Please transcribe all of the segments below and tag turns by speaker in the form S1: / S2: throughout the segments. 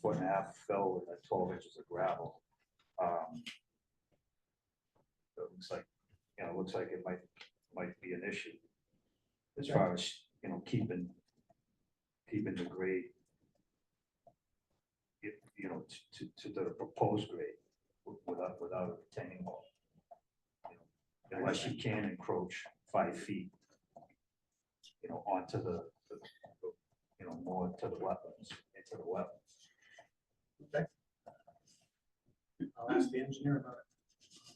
S1: foot and a half fill with like twelve inches of gravel. Um, so It looks like, you know, it looks like it might, might be an issue. As far as, you know, keeping, keeping the grade. You you know, to- to, to the proposed grade wi- without, without a retaining wall. you know, Unless you can encroach five feet. You know, onto the, the- the- you know, more to the wetlands, into the wetlands.
S2: I'll ask the engineer about it.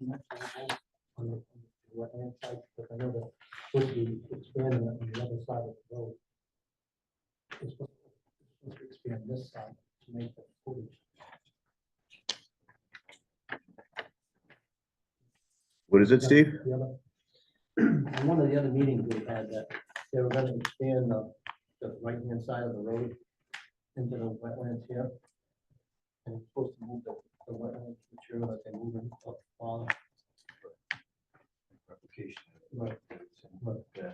S3: On the wetland side, but I know that would be expanding on the other side of the road. It's supposed it's supposed to expand this side to make the footage.
S4: What is it, Steve?
S3: The other- In one of the other meetings we had that they were gonna expand the, the right-hand side of the road into the wetlands here. And it's supposed to move the, the wetland material that they move in up farther.
S1: replication.
S3: Right. Right.
S1: Yeah.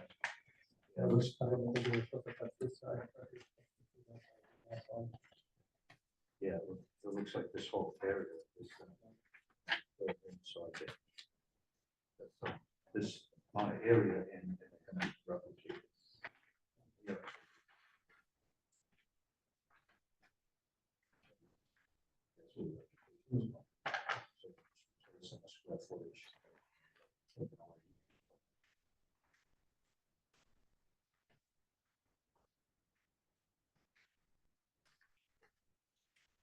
S3: Yeah, it looks- I don't know if it was something like this side, but it's- that's all.
S1: Yeah, it loo- it looks like this whole area is. uh, open, so I think that's, uh, This amount of area and and then replicate. Yeah. That's what replication is. So- so it's in the square footage.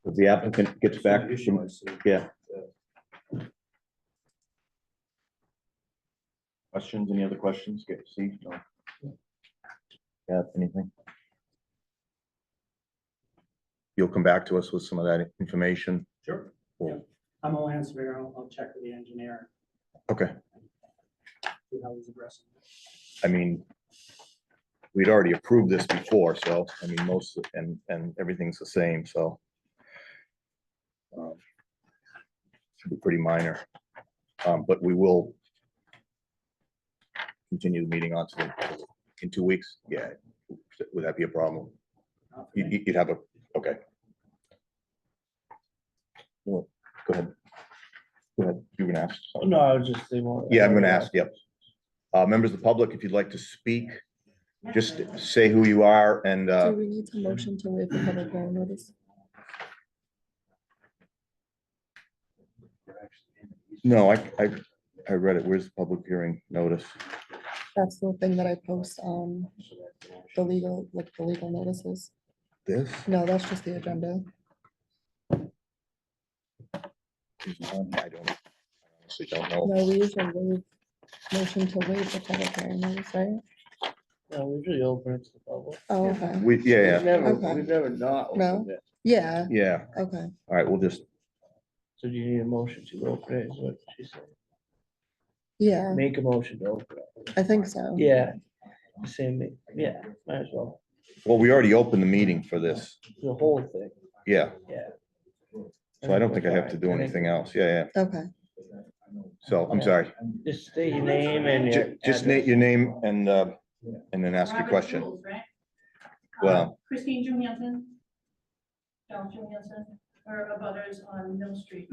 S4: If the applicant gets
S1: That's
S4: back,
S1: the issue I see.
S4: yeah. Questions, any other questions? Get Steve, no? Yeah, anything? You'll come back to us with some of that information.
S2: Sure.
S4: Yeah.
S2: I'm a land surveyor. I'll, I'll check with the engineer,
S4: Okay,
S2: see how he's addressing it.
S4: I mean, we'd already approved this before, so, I mean, most, and, and everything's the same, so. um, Should be pretty minor, um, but we will continue the meeting on to, in two weeks, yeah, would that be a problem?
S2: Not for
S4: You,
S2: me.
S4: you- you'd have a, okay. Well, Go ahead. Go ahead, you can ask.
S3: Oh,
S4: something.
S5: No, I was just. they won't-
S4: Yeah, I'm gonna ask, yep. Uh, members of the public, if you'd like to speak, just say who you are and,
S6: Do
S4: uh,
S6: we need to motion to waive the public hearing notice?
S1: They're actually in the easement.
S4: no, I, I, I read it. Where's the public hearing notice?
S6: That's the thing that I post on
S1: So that's the
S6: the
S1: action.
S6: legal, like the legal notices.
S4: This?
S6: No, that's just the agenda.
S4: is on- I don't, I honestly don't know.
S6: No, we usually waive, motion to waive the public hearing notice, right?
S5: No, we usually open it to the public.
S6: Oh, okay.
S4: We, yeah,
S5: We've
S4: yeah,
S5: never,
S6: Okay.
S5: we've never not
S6: No.
S5: opened it.
S6: Yeah,
S4: yeah.
S6: okay.
S4: All right, we'll just,
S5: So do you need a motion to open it, is what she said.
S6: Yeah,
S5: Make a motion to open it.
S6: I think so.
S5: Yeah, same, thing. yeah, might as well,
S4: well, we already opened the meeting for this.
S5: the whole thing,
S4: Yeah,
S5: yeah.
S4: so I don't think I have to do anything else. Yeah, yeah.
S6: Okay,
S4: So I'm sorey.
S5: Just state your name and your.
S4: Ju- Just state your name and, uh, and then ask your
S7: Robert's
S4: question.
S7: rules, right?
S4: Well-
S7: Um, Christine Julianson, John Julianson, are abutters on Mill Street.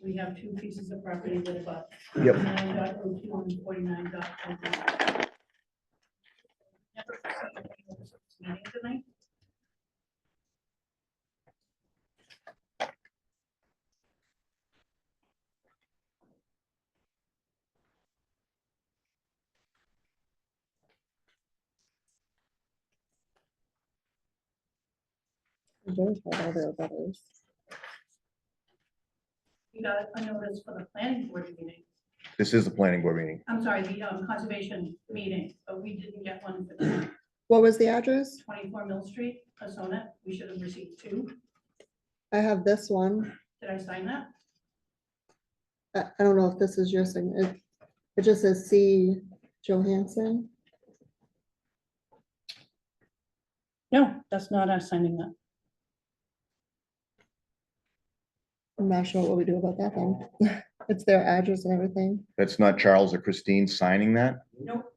S7: We have two pieces of property that abut.
S4: Yep.
S7: 49.02 and 49.01. Never proceed with this meeting tonight.
S6: verified all the others.
S7: We got a notice for the planning board meeting,
S4: This is the planning board meeting.
S7: I'm sorry, the um, conservation meeting, but we didn't get one for the
S6: What was the address?
S7: 24 Mill Street, Asona. We should have received two.
S6: I have this one.
S7: Did I sign that?
S6: I, I don't know if this is your signature. It just says C Johansson.
S7: No, that's not us signing that.
S6: I'm not sure what we do about that then. It's their address and everything.
S4: That's not Charles or Christine signing that?
S7: Nope,